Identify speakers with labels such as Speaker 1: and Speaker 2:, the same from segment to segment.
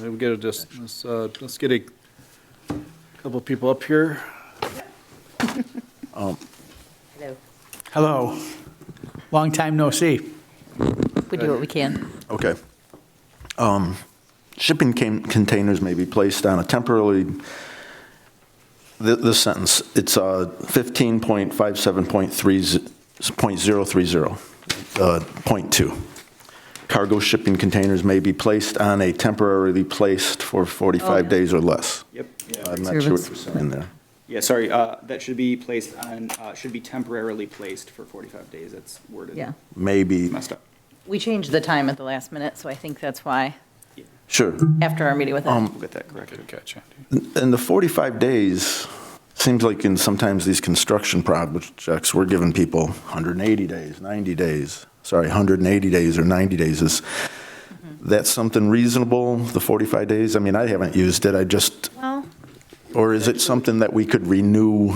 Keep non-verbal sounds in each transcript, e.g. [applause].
Speaker 1: We'll get a, dis- let's, uh, let's get a couple people up here.
Speaker 2: Hello.
Speaker 3: Hello. Long time no see.
Speaker 2: We do what we can.
Speaker 4: Okay. Um, Shipping can- containers may be placed on a temporarily, thi- this sentence, it's uh, 15.57.30, uh, point 2. Cargo shipping containers may be placed on a temporarily placed for
Speaker 2: Oh, yeah.
Speaker 4: 45 days or less.
Speaker 5: Yep.
Speaker 4: I'm not sure what you're
Speaker 2: Service.
Speaker 4: saying there.
Speaker 5: Yeah, sorry, uh, that should be placed on, uh, should be temporarily placed for 45 days, that's worded.
Speaker 2: Yeah.
Speaker 4: Maybe,
Speaker 5: Messed up.
Speaker 2: We changed the time at the last minute, so I think that's why,
Speaker 4: sure.
Speaker 2: after our meeting with them.
Speaker 5: We'll get that corrected.
Speaker 1: catch,
Speaker 4: And the 45 days, seems like in sometimes these construction projects, we're giving people 180 days, 90 days, sorry, 180 days or 90 days. Is that something reasonable, the 45 days? I mean, I haven't used it, I just,
Speaker 2: Well,
Speaker 4: or is it something that we could renew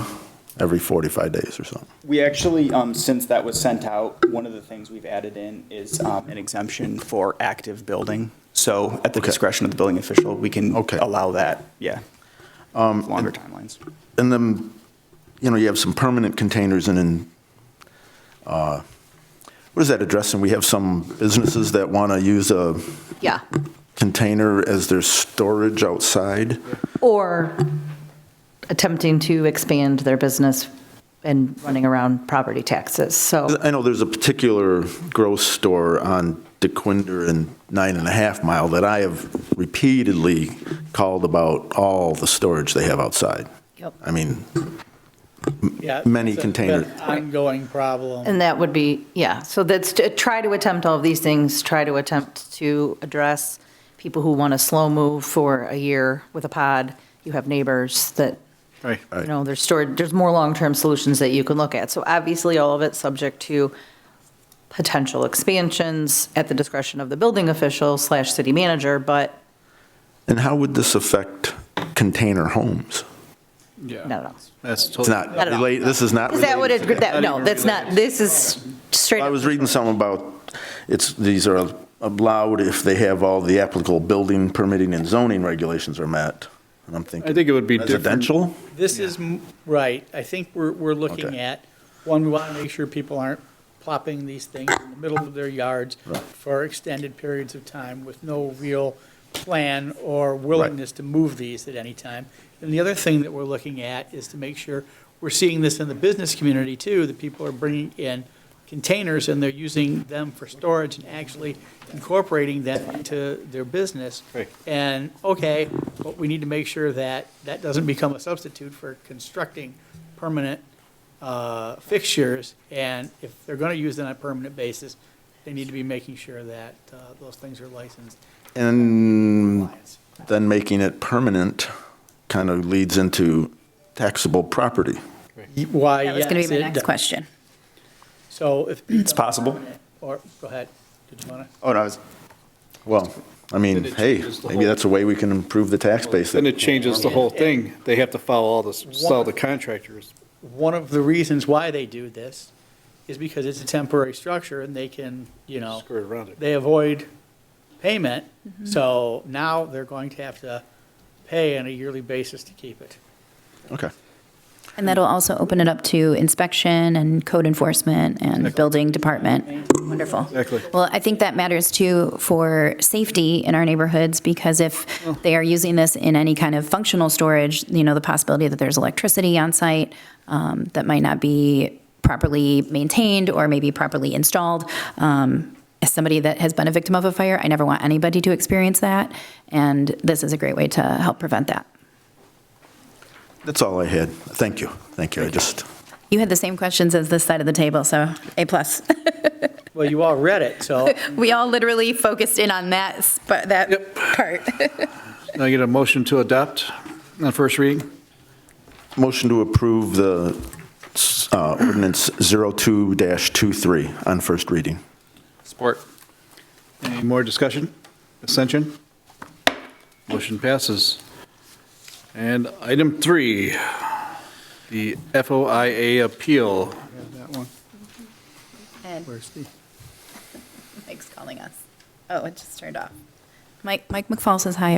Speaker 4: every 45 days or something?
Speaker 5: We actually, um, since that was sent out, one of the things we've added in is um, an exemption for active building. So at the
Speaker 4: Okay.
Speaker 5: discretion of the building official, we can
Speaker 4: Okay.
Speaker 5: allow that, yeah. Longer timelines.
Speaker 4: And then, you know, you have some permanent containers and then, uh, what is that addressing? We have some businesses that want to use a
Speaker 2: yeah.
Speaker 4: container as their storage outside.
Speaker 2: Or attempting to expand their business and running around property taxes, so.
Speaker 4: I know there's a particular grocery store on DeQuinder and Nine and a Half Mile that I have repeatedly called about all the storage they have outside.
Speaker 2: Yep.
Speaker 4: I mean, Many
Speaker 3: it's a-
Speaker 4: containers.
Speaker 3: been an Ongoing problem.
Speaker 2: And that would be, yeah, so that's, to try to attempt all of these things, try to attempt to address people who want to slow move for a year with a pod. You have neighbors that
Speaker 1: Right.
Speaker 2: you know, there's stored, there's more long-term solutions that you can look at. So obviously, all of it's subject to potential expansions at the discretion of the building official slash city manager, but
Speaker 4: and how would this affect container homes?
Speaker 1: Yeah.
Speaker 2: no, no.
Speaker 1: That's
Speaker 4: It's
Speaker 1: totally,
Speaker 4: not
Speaker 2: Not at all.
Speaker 4: related, this is not
Speaker 2: Is that what
Speaker 4: related
Speaker 2: it,
Speaker 4: to
Speaker 2: that, no, that's not, this is straight
Speaker 4: I was
Speaker 2: up,
Speaker 4: reading something about, it's, these are allowed if they have all the applicable building permitting and zoning regulations are met. And I'm thinking.
Speaker 1: I think it would be different.
Speaker 4: Residential?
Speaker 3: This is, m- right, I think we're, we're looking
Speaker 4: Okay.
Speaker 3: at, one, we want to make sure people aren't plopping these things in the middle of their yards for extended periods of time with no real plan or willingness to move these at any time. And the other thing that we're looking at is to make sure, we're seeing this in the business community too, that people are bringing in containers and they're using them for storage and actually incorporating that into their business.
Speaker 1: Right.
Speaker 3: And, okay, but we need to make sure that that doesn't become a substitute for constructing permanent uh, fixtures. And if they're going to use them on a permanent basis, they need to be making sure that uh, those things are licensed.
Speaker 4: And then making it permanent kind of leads into taxable property.
Speaker 3: Why,
Speaker 6: That was going to
Speaker 3: yes,
Speaker 6: be
Speaker 3: it
Speaker 6: my next
Speaker 3: does.
Speaker 6: question.
Speaker 3: So if. [clears throat]
Speaker 5: It's possible.
Speaker 3: Or, go ahead. Did you want to?
Speaker 5: Oh, no, I was,
Speaker 4: Well, I mean,
Speaker 1: Then it
Speaker 4: hey,
Speaker 1: changes the
Speaker 4: maybe
Speaker 1: whole-
Speaker 4: that's a way we can improve the tax base.
Speaker 1: Then it changes the whole thing. They have to follow all this, sell the contractors.
Speaker 3: One of the reasons why they do this is because it's a temporary structure and they can, you know.
Speaker 1: Skirt around it.
Speaker 3: they avoid payment,
Speaker 6: Mm-hmm.
Speaker 3: so now they're going to have to pay on a yearly basis to keep it.
Speaker 4: Okay.
Speaker 6: And that'll also open it up to inspection and code enforcement and building department. Wonderful.
Speaker 1: Exactly.
Speaker 6: Well, I think that matters too for safety in our neighborhoods, because if they are using this in any kind of functional storage, you know, the possibility that there's electricity on site um, that might not be properly maintained or maybe properly installed. Um, As somebody that has been a victim of a fire, I never want anybody to experience that, and this is a great way to help prevent that.
Speaker 4: That's all I had. Thank you. Thank you. I just,
Speaker 6: You had the same questions as this side of the table, so A plus. [laughs]
Speaker 3: Well, you all read it, so
Speaker 6: We all literally focused in on that, sp- that part.
Speaker 1: Now I get a motion to adopt on first reading?
Speaker 4: motion to approve the uh, ordinance 02-23 on first reading.
Speaker 1: Support. Any more discussion? Ascension? Motion passes. And item three, the FOIA appeal.
Speaker 3: where's the,
Speaker 6: Mike's calling us. Oh, it just turned off. Mike, Mike McFall says hi,